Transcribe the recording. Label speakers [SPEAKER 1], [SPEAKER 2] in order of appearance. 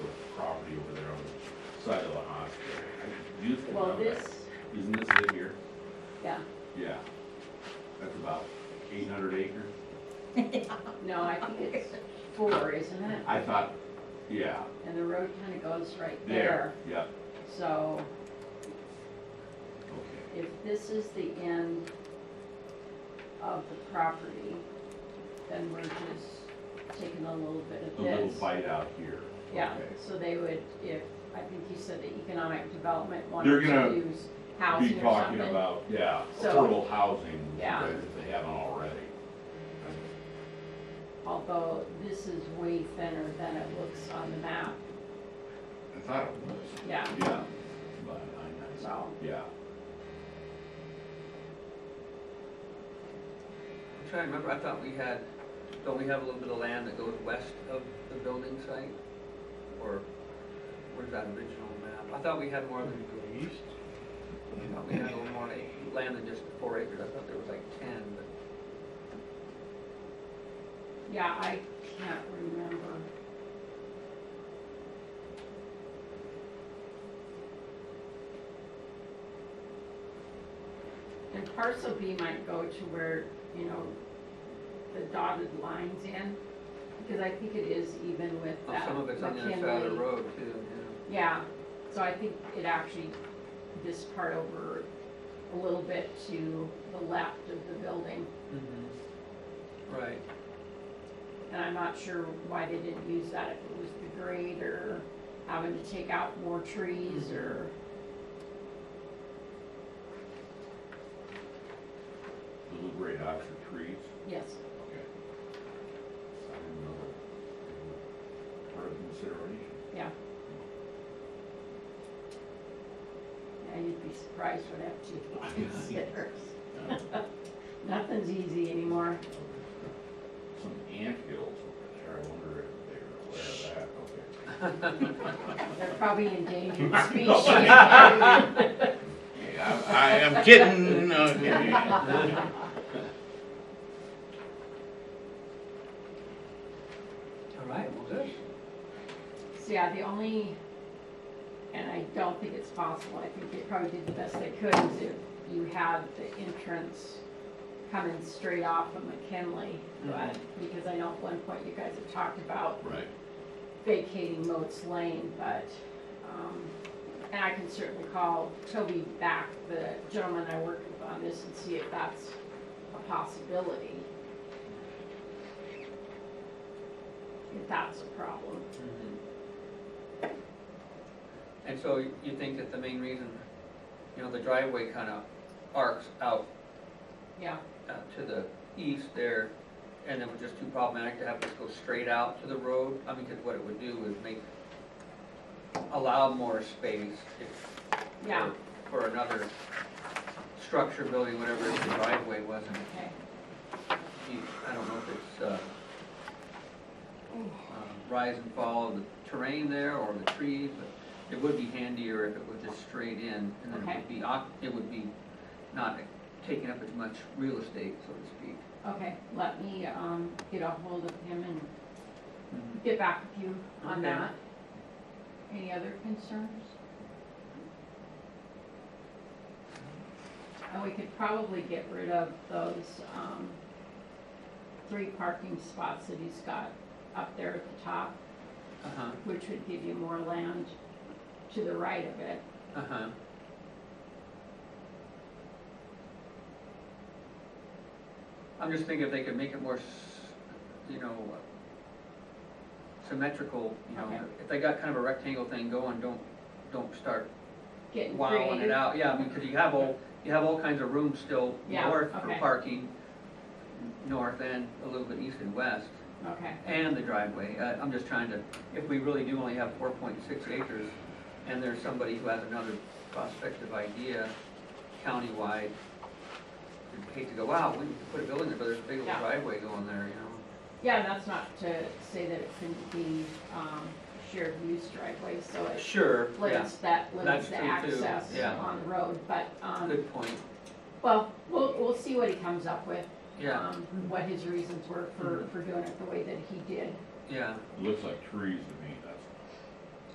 [SPEAKER 1] side of the hospital. I used to
[SPEAKER 2] Well,
[SPEAKER 1] have that.
[SPEAKER 2] this,
[SPEAKER 1] Isn't this it here?
[SPEAKER 2] yeah,
[SPEAKER 1] Yeah. That's about eight hundred acres.
[SPEAKER 2] no, I think it's four, isn't it?
[SPEAKER 1] I thought, yeah,
[SPEAKER 2] And the road kind of goes right
[SPEAKER 1] there,
[SPEAKER 2] there.
[SPEAKER 1] yeah,
[SPEAKER 2] So
[SPEAKER 1] okay.
[SPEAKER 2] if this is the end of the property, then we're just taking a little bit of
[SPEAKER 1] A little
[SPEAKER 2] this.
[SPEAKER 1] bite out here.
[SPEAKER 2] Yeah,
[SPEAKER 1] Okay.
[SPEAKER 2] so they would, if, I think you said the economic development
[SPEAKER 1] They're
[SPEAKER 2] wanted
[SPEAKER 1] gonna
[SPEAKER 2] to use housing
[SPEAKER 1] Be
[SPEAKER 2] or
[SPEAKER 1] talking
[SPEAKER 2] something.
[SPEAKER 1] about, yeah,
[SPEAKER 2] So-
[SPEAKER 1] affordable housing,
[SPEAKER 2] Yeah.
[SPEAKER 1] if they haven't already.
[SPEAKER 2] Although this is way thinner than it looks on the map,
[SPEAKER 1] I thought it was.
[SPEAKER 2] yeah,
[SPEAKER 1] Yeah, but I know,
[SPEAKER 2] so.
[SPEAKER 1] yeah.
[SPEAKER 3] I'm trying to remember, I thought we had, don't we have a little bit of land that goes west of the building site? Or where's that original map? I thought we had more than,
[SPEAKER 4] East?
[SPEAKER 3] I thought we had a little more like, land than just four acres. I thought there was like ten, but.
[SPEAKER 2] Yeah, I can't remember. And parcel B might go to where, you know, the dotted lines in, because I think it is even with
[SPEAKER 3] Oh,
[SPEAKER 2] that
[SPEAKER 3] Some of it's on the other side of the
[SPEAKER 2] McKinley.
[SPEAKER 3] road too, yeah.
[SPEAKER 2] Yeah, so I think it actually, this part over a little bit to the left of the building.
[SPEAKER 3] Right,
[SPEAKER 2] And I'm not sure why they didn't use that, if it was the grade or having to take out more trees or.
[SPEAKER 1] Little great Oxford trees.
[SPEAKER 2] Yes,
[SPEAKER 1] Okay. I didn't know that. they were Part of consideration.
[SPEAKER 2] yeah, you'd be surprised what FGE considers. Nothing's easy anymore.
[SPEAKER 1] Some ant hills over there, I wonder if they're aware of that, okay.
[SPEAKER 2] They're probably endangered species.
[SPEAKER 1] Yeah. Yeah, I I am kidding, okay.
[SPEAKER 3] all right, well, good.
[SPEAKER 2] So yeah, the only, and I don't think it's possible, I think they probably did the best they could, is if you had the entrance coming straight off of McKinley, but, because I know at one point you guys have talked about
[SPEAKER 1] Right.
[SPEAKER 2] vacating Moats Lane, but, um, and I can certainly call Toby back, the gentleman I work with on this, and see if that's a possibility. If that's a problem.
[SPEAKER 3] Mm-hmm. And so you think that the main reason, you know, the driveway kind of arcs out
[SPEAKER 2] Yeah,
[SPEAKER 3] uh, to the east there, and it was just too problematic to have this go straight out to the road. I mean, because what it would do is make, allow more space if-
[SPEAKER 2] yeah,
[SPEAKER 3] for for another structure, building, whatever, if the driveway wasn't,
[SPEAKER 2] okay.
[SPEAKER 3] deep. I don't know if it's uh, uh, rise and fall of the terrain there or the trees, but it would be handier if it was just straight in, and then it
[SPEAKER 2] Okay.
[SPEAKER 3] would be, oc- it would be not taking up as much real estate, so to speak.
[SPEAKER 2] Okay, let me, um, get a hold of him and get back with you on
[SPEAKER 3] Okay.
[SPEAKER 2] that. Any other concerns? And we could probably get rid of those, um, three parking spots that he's got up there at the top,
[SPEAKER 3] Uh-huh,
[SPEAKER 2] which would give you more land to the right of it.
[SPEAKER 3] uh-huh. I'm just thinking if they could make it more, s- you know, uh, symmetrical, you know,
[SPEAKER 2] Okay.
[SPEAKER 3] if they got kind of a rectangle thing going, don't, don't start
[SPEAKER 2] Getting
[SPEAKER 3] wowing it
[SPEAKER 2] creative.
[SPEAKER 3] out, yeah, because you have all, you have all kinds of room still
[SPEAKER 2] Yeah,
[SPEAKER 3] north for
[SPEAKER 2] okay.
[SPEAKER 3] parking, north and a little bit east and west,
[SPEAKER 2] Okay,
[SPEAKER 3] and the driveway. Uh, I'm just trying to, if we really do only have four point six acres, and there's somebody who has another prospective idea countywide, you'd hate to go, wow, we could put a building there, but there's a big old
[SPEAKER 2] Yeah.
[SPEAKER 3] driveway going there, you know?
[SPEAKER 2] yeah, and that's not to say that it couldn't be, um, shared use driveway, so it
[SPEAKER 3] Sure, yeah,
[SPEAKER 2] limits that, limits
[SPEAKER 3] That's
[SPEAKER 2] the
[SPEAKER 3] true, too.
[SPEAKER 2] access
[SPEAKER 3] Yeah.
[SPEAKER 2] on the road, but, um,
[SPEAKER 3] good point,
[SPEAKER 2] well, we'll, we'll see what he comes up with.
[SPEAKER 3] yeah,
[SPEAKER 2] um, What his reasons were for, for doing it the way that he did.
[SPEAKER 3] yeah.
[SPEAKER 1] It looks like trees to me.